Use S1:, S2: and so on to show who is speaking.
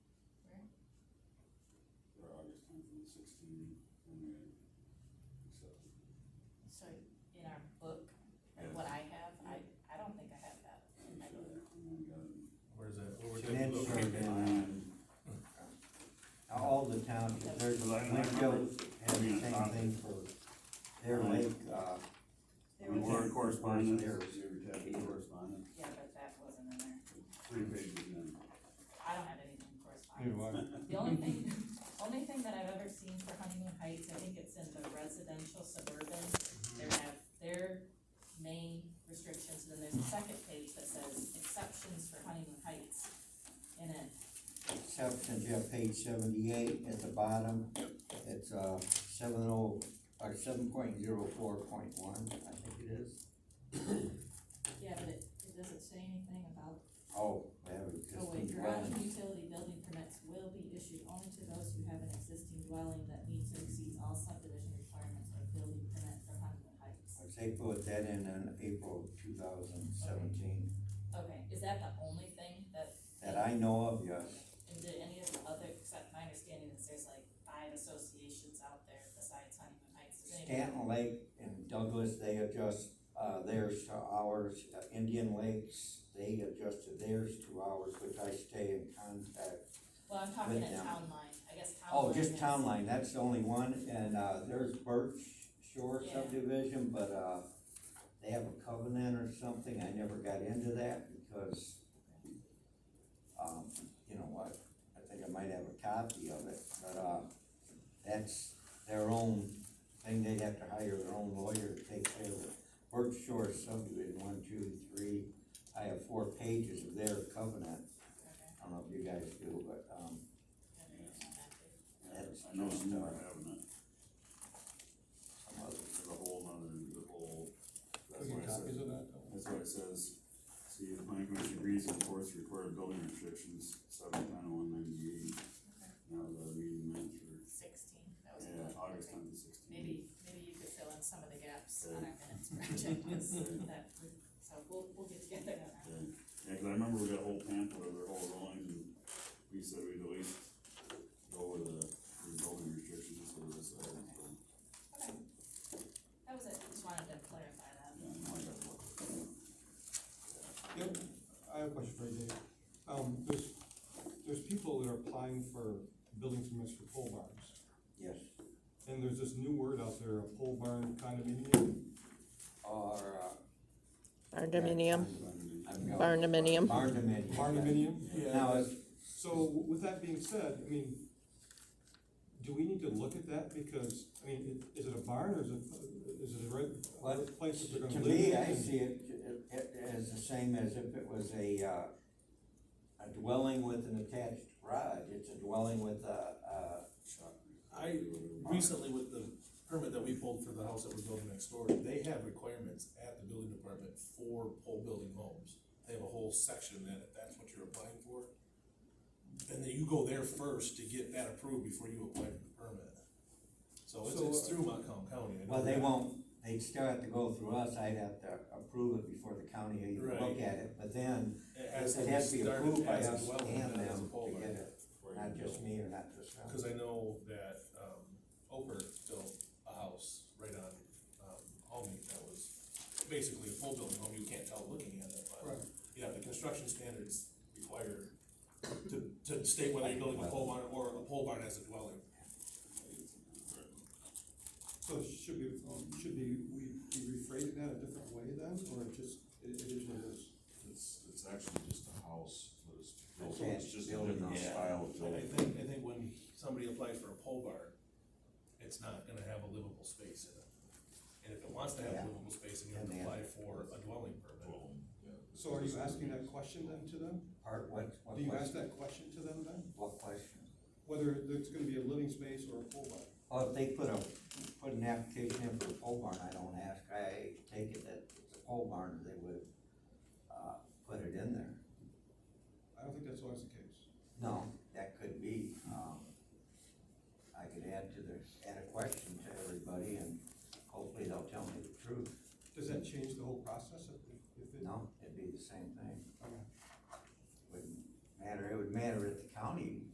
S1: sixteen when they accepted.
S2: So in our book, or what I have, I, I don't think I have that in my book.
S1: And then we got it.
S3: Where's that? Where would
S4: And
S3: that
S4: that's
S3: look?
S4: sort of in, uh, all the townships, there's, Lakeville has the same thing for their lake, uh,
S2: There
S1: We
S2: was,
S1: were correspondence,
S4: There was-
S1: you ever type in correspondence,
S2: yeah, but that wasn't in there.
S1: three pages in.
S2: I don't have anything correspondence. The only thing, only thing that I've ever seen for Honeymoon Heights, I think it's in the residential suburban, they have their main restrictions, and then there's a second page that says exceptions for Honeymoon Heights. in it,
S4: exceptions, you have page seventy-eight at the bottom. It's, uh, seven oh, or seven point zero four point one, I think it is.
S2: yeah, but it, it doesn't say anything about
S4: Oh, that was
S2: Oh
S4: just.
S2: wait,
S4: in
S2: garage and
S4: one.
S2: utility building permits will be issued only to those who have an existing dwelling that meets or exceeds all subdivision requirements or building permit for Huntington Heights.
S4: They put that in in April two thousand seventeen,
S2: Okay, is that the only thing that,
S4: that I know of, yes.
S2: and did any of the other, except my understanding is there's like five associations out there besides Huntington Heights. Does any-
S4: Stanton Lake and Douglas, they adjust, uh, theirs to ours, Uh, Indian Lakes, they adjust to theirs to ours, which I stay in contact.
S2: Well, I'm talking
S4: With
S2: at
S4: them.
S2: town line, I guess town line.
S4: Oh, just
S2: is-
S4: Town Line, that's the only one, and, uh, there's Birch Shore
S2: Yeah.
S4: subdivision, but, uh, they have a covenant or something, I never got into that because, um, you know what, I think I might have a copy of it, but, uh, that's their own thing, they'd have to hire their own lawyer to take care of it. Birch Shore subdivision, one, two, three, I have four pages of their covenant,
S2: Okay,
S4: I don't know if you guys do, but, um,
S2: I don't know that too.
S4: That's
S1: I know
S4: just,
S1: some
S4: uh,
S1: are having it,
S4: some other
S1: there's a whole nother, the whole, that's
S3: Can we get
S1: why it says,
S3: copies of that? though?
S1: that's why it says, see, the planning commission agrees to enforce required building restrictions, seven ten one ninety-eight.
S2: Okay.
S1: Now the meeting minutes for,
S2: Sixteen, that was.
S1: yeah, August
S2: okay.
S1: tenth to sixteen.
S2: Maybe, maybe you could fill in some of the gaps on our minutes project, 'cause that, would- so we'll, we'll get together on that.
S1: Okay. Yeah, cause I remember we got a whole pamphlet of their whole drawings and we said we'd at least go with the, the building restrictions for this, uh, so,
S2: Okay. That was it, just wanted to clarify that.
S1: yeah, I might have to look.
S5: Yep, I have a question for you, Dave. Um, there's, there's people that are applying for building permits for pole barns.
S4: Yes,
S5: And there's this new word out there, a pole barn condominium.
S4: or,
S6: Barndominium,
S4: uh, I'm going.
S6: barndominium.
S4: Barndominium.
S5: Barndominium?
S4: Now, it's,
S5: So with that being said, I mean, do we need to look at that? Because, I mean, i- is it a barn or is it, is it a red,
S4: Well,
S5: place that they're
S4: to
S5: gonna live
S4: me,
S5: in?
S4: I see it, it, as the same as if it was a, uh, a dwelling with an attached garage, it's a dwelling with a,
S7: I, recently with the permit that we pulled for the house that was built next door, they have requirements at the building department for pole building homes. They have a whole section that, if that's what you're applying for, then you go there first to get that approved before you apply for the permit. So it's, it's through Montcalm County. I
S4: a,
S7: know
S4: uh, well, they
S7: that.
S4: won't, they'd still have to go through us, I'd have to approve it before the county even
S7: Right.
S4: look at it, but then
S7: It has
S4: it has to be
S7: started
S4: approved by
S7: as a
S4: us
S7: dwelling,
S4: and
S7: then as a
S4: them
S7: pole
S4: to
S7: barn.
S4: get it, not just me or not just them.
S7: Cause I know that, um, Oprah built a house right on, um, Almy that was basically a full building home, you can't tell looking at it, but, yeah, the construction standards require to, to state whether you're building a pole barn or a pole barn as a dwelling.
S5: So should we, um, should be, we we rephrase that a different way then, or just, it it is what it is?
S8: It's, it's actually just a house, but it's,
S4: Okay.
S8: it's just a different
S4: Yeah.
S8: style of
S7: And I
S8: building.
S7: think, I think when somebody applies for a pole barn, it's not gonna have a livable space in it. And if it wants to have
S4: Yeah.
S7: a livable space, then you have
S4: And
S7: to
S4: they
S7: apply for a dwelling
S1: um,
S7: permit.
S5: So are you asking that question then to them?
S4: Part, what, what
S5: Do you ask
S4: question?
S5: that question to them then?
S4: What question?
S5: Whether there's gonna be a living space or a pole barn?
S4: Well, if they put a, put an application in for a pole barn, I don't ask, I take it that it's a pole barn, they would, uh, put it in there.
S5: I don't think that's always the case.
S4: No, um,